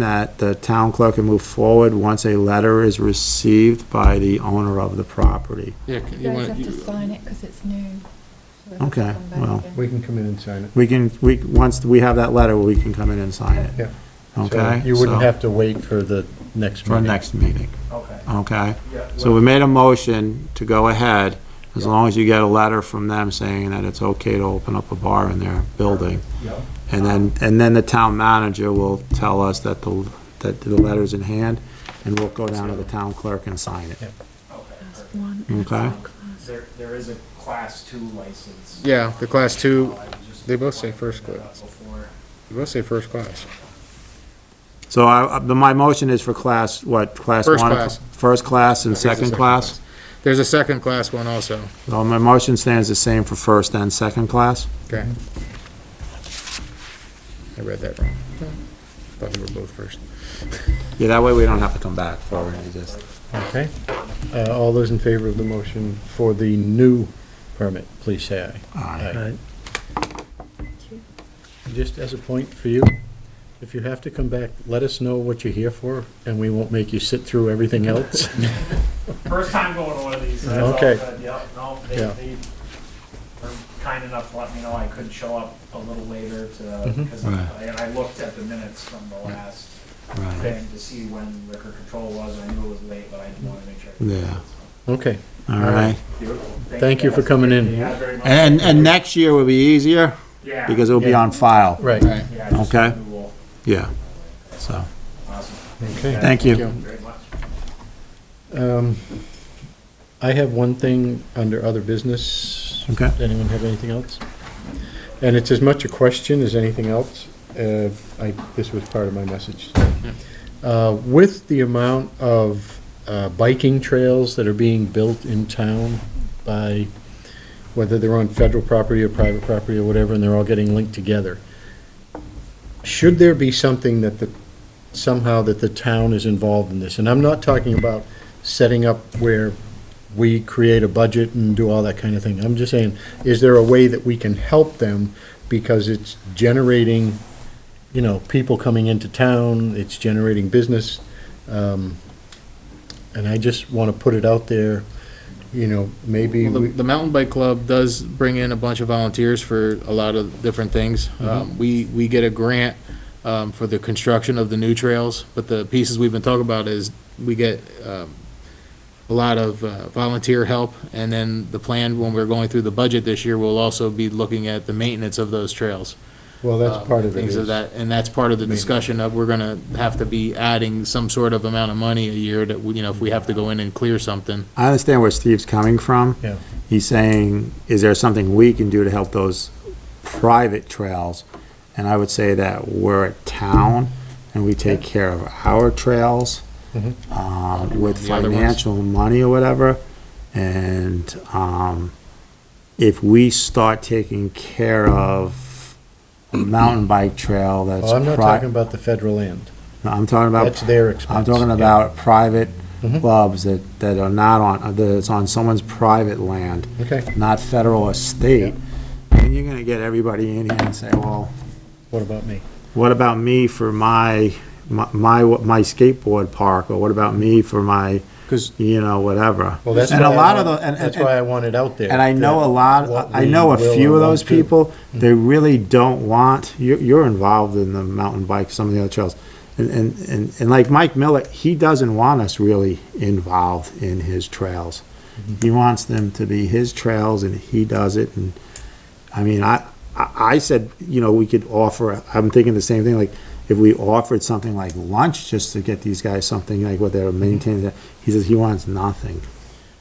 that the town clerk can move forward once a letter is received by the owner of the property. Yeah, c- You you uh, guys want, have to you- sign it because it's new. So it'll Okay, come back well. again. We can come in and sign it. We can, we, once we have that letter, we can come in and sign it. Yeah. So Okay? You wouldn't So- have to wait for the next For meeting. next meeting, Okay. okay? Yeah, So we made a motion to go ahead, as long as you get a letter from them saying that it's okay to open up a bar in their building. Yeah. And then, and then the town manager will tell us that the, that the letter's in hand, and we'll go down to the town clerk and sign it. Yeah. Okay. That's perfect. one Okay. outside class. There, there is a class two license. yeah, the class two, I just they both say wanted to first bring that class. up Before. you must say first class. So I, I- but my motion is for class, what, class one? First class. First class and second class? There's a second class one also, So my motion stands the same for first and second class? okay. Mm-hmm. I read that wrong. Thought they were both first. Yeah, that way we don't have to come back for it, just. Okay. Uh, All those in favor of the motion for the new permit, please say aye. Aye. Just as a point for you, if you have to come back, let us know what you're here for, and we won't make you sit through everything else. First time going to one of these, that's all Okay. good, yeah, no, they, Yeah. they were kind enough to let me know I could show up a little later to, Mhm. because Right. I, I looked at the minutes from the last Right, thing to see when liquor control was, and I knew it was late, but I didn't want to make sure. Yeah. Okay, all right. Beautiful. Thank you for guys. coming in. Yeah, very much. And, and next year will be easier, Yeah. because it'll be Yeah. on file, right, Right. Yeah, just Okay. we will- yeah. So, Awesome. okay. thank you. you. Very much. Um, I have one thing under other business. Okay. Does Anyone have anything else? And it's as much a question as anything else. Uh, I, this was part of my message. Uh, With the amount of uh, biking trails that are being built in town by, whether they're on federal property or private property or whatever, and they're all getting linked together, should there be something that the, somehow that the town is involved in this? And I'm not talking about setting up where we create a budget and do all that kind of thing. I'm just saying, is there a way that we can help them because it's generating, you know, people coming into town, it's generating business. um, And I just want to put it out there, you know, maybe, Well, The, we- the mountain bike club does bring in a bunch of volunteers for a lot of different things. Mm-hmm. Um, we, we get a grant, um, for the construction of the new trails, but the pieces we've been talking about is we get, um, a lot of uh, volunteer help, and then the plan, when we're going through the budget this year, we'll also be looking at the maintenance of those trails. well, um, that's part of it. Things of is- that, and that's part of the Maintenance. discussion of, we're gonna have to be adding some sort of amount of money a year that, we- you know, if we have to go in and clear something. I understand where Steve's coming from. Yeah. He's saying, is there something we can do to help those private trails? And I would say that we're a town and we take care of our trails Mhm. um, with The other ones. financial money or whatever. And um, if we start taking care of a mountain bike trail that's. Well, Oh, I'm not pri- talking about the federal land. No, I'm talking about. That's their expense. I'm talking yeah. about private Mhm. clubs that, that are not on, uh, that it's on someone's private land, Okay, not federal or state. And you're gonna get everybody in here and say, well, what about me? what about me for my, my, my my skateboard park? Or what about me for my, 'Cause- you know, whatever? Well, that's And a why I lot of want- the- and- That's and- why I want it out there. And I know that a lot, what I we know a will Mm-hmm. few or of won't those do. people, they really don't want, you're, you're involved in the mountain bike, some of the other trails. And, and, and, and like Mike Millett, he doesn't want us really involved in his trails. Mm-hmm. He wants them to be his trails and he does it and, I mean, I, I I said, you know, we could offer, I'm thinking the same thing, like, if we offered something like lunch just to get these guys something like what they're Mm-hmm. maintaining, he says he wants nothing.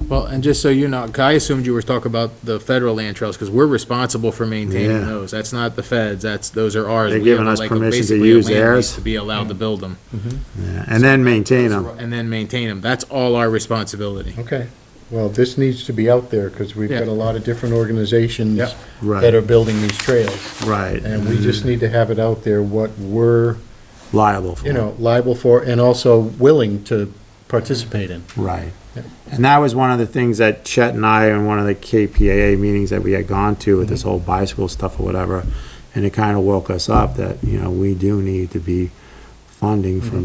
Well, and just so you know, I assumed you were talking about the federal land trails, because we're responsible for maintaining Yeah. those. That's not the feds, that's, those are ours. They're We have giving us like a- permission to basically a use land lease theirs. To be allowed to build them. Yeah, Mm-hmm. And then maintain them. And then maintain them. That's all our responsibility. Okay, well, this needs to be out there, because we've got Yeah. a lot of different organizations Yep. Right. that are building these trails, Right. and we just need to have it out there, what we're, liable for. you know, liable for, and also willing to participate in. Right. Yeah. And that was one of the things that Chet and I, in one of the KPAA meetings that we had gone to with Mm-hmm. this whole bicycle stuff or whatever, and it kind of woke us up that, you know, we do need to be funding from